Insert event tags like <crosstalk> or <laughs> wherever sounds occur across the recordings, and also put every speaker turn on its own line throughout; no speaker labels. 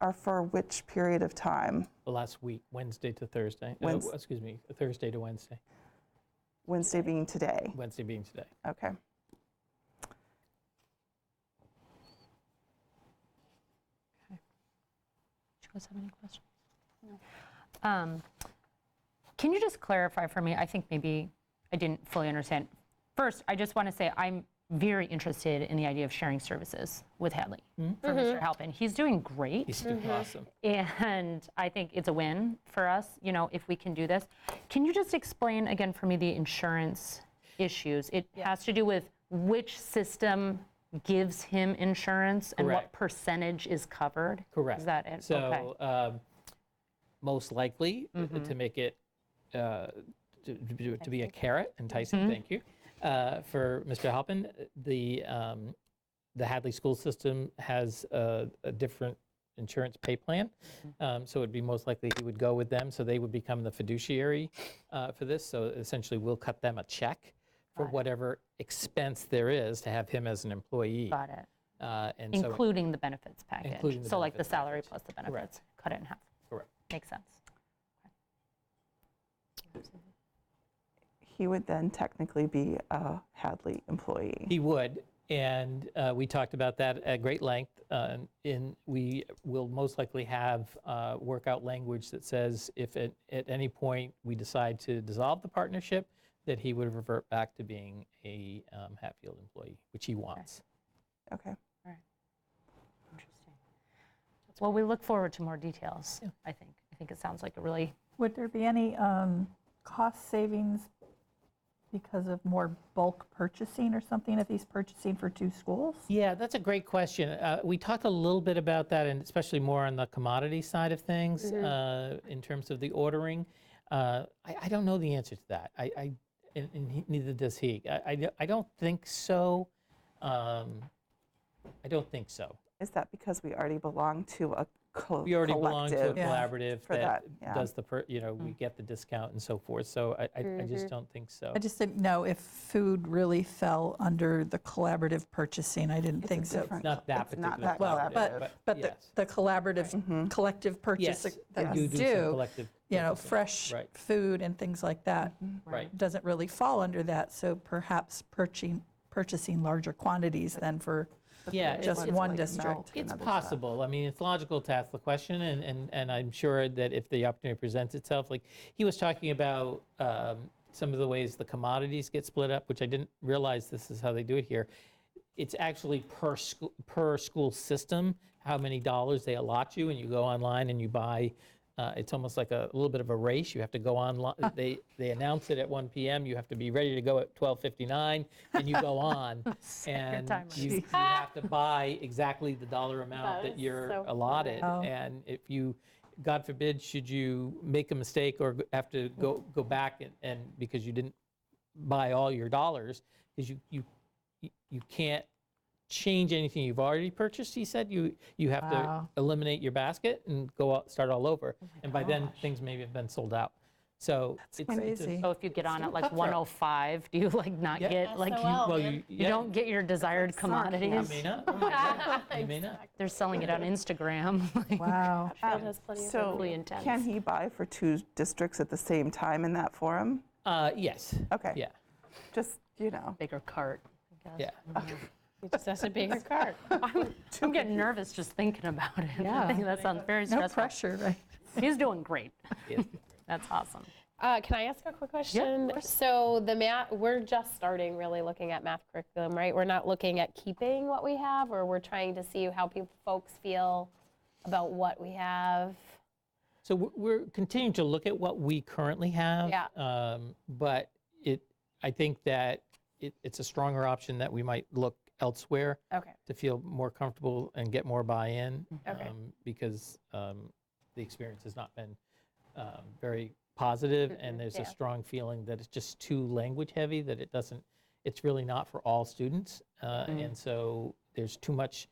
are for which period of time?
the last week, Wednesday to Thursday. No,
Wednes-
excuse me, Thursday to Wednesday,
Wednesday being today.
Wednesday being today.
Okay.
Do you guys have any questions? Um, Can you just clarify for me, I think maybe I didn't fully understand. First, I just want to say I'm very interested in the idea of sharing services with Hadley for Mr. Halpin. He's doing great.
Mm-hmm. He's doing awesome.
And I think it's a win for us, you know, if we can do this. Can you just explain again for me the insurance issues? It has to do with which system gives him insurance and what
Correct.
percentage is covered?
Correct.
Is that it? Okay. Mm-hmm.
So um, most likely uh, to make it uh, to, to be- to be a carrot, enticing.
Mm-hmm.
Thank you uh, for Mr. Halpin. The um, the Hadley school system has a, a different insurance pay plan,
Mm-hmm.
um, so it'd be most likely he would go with them. So they would become the fiduciary uh, for this. So essentially, we'll cut them a check for whatever expense there is to have him as an employee.
Got it.
Uh, and so
Including the benefits package.
Including the
So like the
benefits
salary
package.
plus the benefits, cut it in half.
Correct.
Makes sense.
He would then technically be a Hadley employee.
He would, and uh, we talked about that at great length. uh, In, we will most likely have uh, work out language that says if at, at any point we decide to dissolve the partnership, that he would revert back to being a um, Hatfield employee, which he wants.
Okay.
Interesting. Well, we look forward to more details, I think. I think it sounds like a really,
Would there be any um, cost savings because of more bulk purchasing or something if he's purchasing for two schools?
Yeah, that's a great question. Uh, we talked a little bit about that, and especially more on the commodity side of things uh, in terms of the ordering. Uh, I, I don't know the answer to that. I, I and, and he, neither does he. I, I, d- I don't think so. Um, I don't think so.
Is that because we already belong to a co-
We already belong to a
collective?
Yeah.
collaborative
for that,
that,
yeah.
does the per, you know we get the discount and so forth. So I, I, I just don't think so.
I just didn't know if food really fell under the collaborative purchasing. I
It's
didn't
a
think so.
different-
not that
it's not
particular
that
Well,
collaborative,
collaborative.
but, but the-
yes. Mm-hmm.
the collaborative, collective
yes,
purchase
we
that
do
you
do some
do,
collective
you know,
purchasing.
fresh
Right. Mm-hmm.
food and things like that,
right.
doesn't really fall under that. So perhaps purchasing, purchasing larger quantities than for
Yeah, it's-
just
it's
one
like
district.
melt. to
It's
another child.
possible. I mean, it's logical to ask the question, and, and, and I'm sure that if the opportunity presents itself, like he was talking about um, some of the ways the commodities get split up, which I didn't realize this is how they do it here. It's actually per school per school system how many dollars they allot you, and you go online and you buy. Uh, it's almost like a, little bit of a race. You have to go online. They they announce it at 1 p.m. You have to be ready to go at 12:59, and you go on, and
timer.
you <laughs> you have to buy exactly the dollar amount that you're allotted. And if you, God forbid, should you make a mistake or g- have to go, go back and, and because you didn't buy all your dollars, because you, you, you- you can't change anything you've already purchased, he said, you, you have to
Wow.
eliminate your basket and go out, start all over. And by then, things maybe have been sold out. So. it's- it's a-
crazy.
so if you get on at like
cutthroat.
105, do you like not
Yeah.
get, like,
SOL.
you-
Well, you,
you
yeah,
don't get your desired
you
commodities?
may not. You may
<laughs>
not. <laughs> You may not.
They're selling it on Instagram. <laughs> like-
Wow.
That has plenty of
So
really intense.
can he buy for two districts at the same time in that forum?
Uh, yes.
Okay.
Yeah,
Just, you know,
Bigger cart, I guess.
yeah.
He just has to pay your card.
I'm I'm getting nervous just thinking about it. <laughs> I think that sounds very
<laughs> No
stressful.
pressure, right?
He's doing great.
Yeah.
That's awesome.
Uh, can I ask a quick question? so the math, we're just starting really looking at math curriculum, right? We're not looking at keeping what we have, or we're trying to see how people, folks feel about what we have.
So we're- we're continuing to look at what we currently have.
Yeah.
um, But it, I think that it, it's a stronger option that we might look elsewhere
Okay.
to feel more comfortable and get more buy-in.
Okay.
um, Because um, the experience has not been um, very positive, and there's a
Mm-hmm. yeah.
strong feeling that it's just too language-heavy, that it doesn't, it's really not for all students. uh,
Mm-hmm.
And so there's too much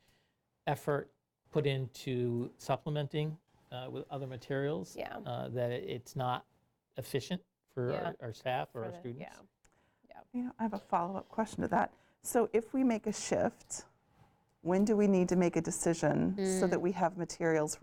effort put into supplementing uh, with other materials.
Yeah.
uh, That it- it's not efficient for
Yeah.
our- our staff or our
the-
students.
yeah.
you know, I have a follow-up question to that. So if
Mm.
we make a shift, when do we need to make a decision so that we have materials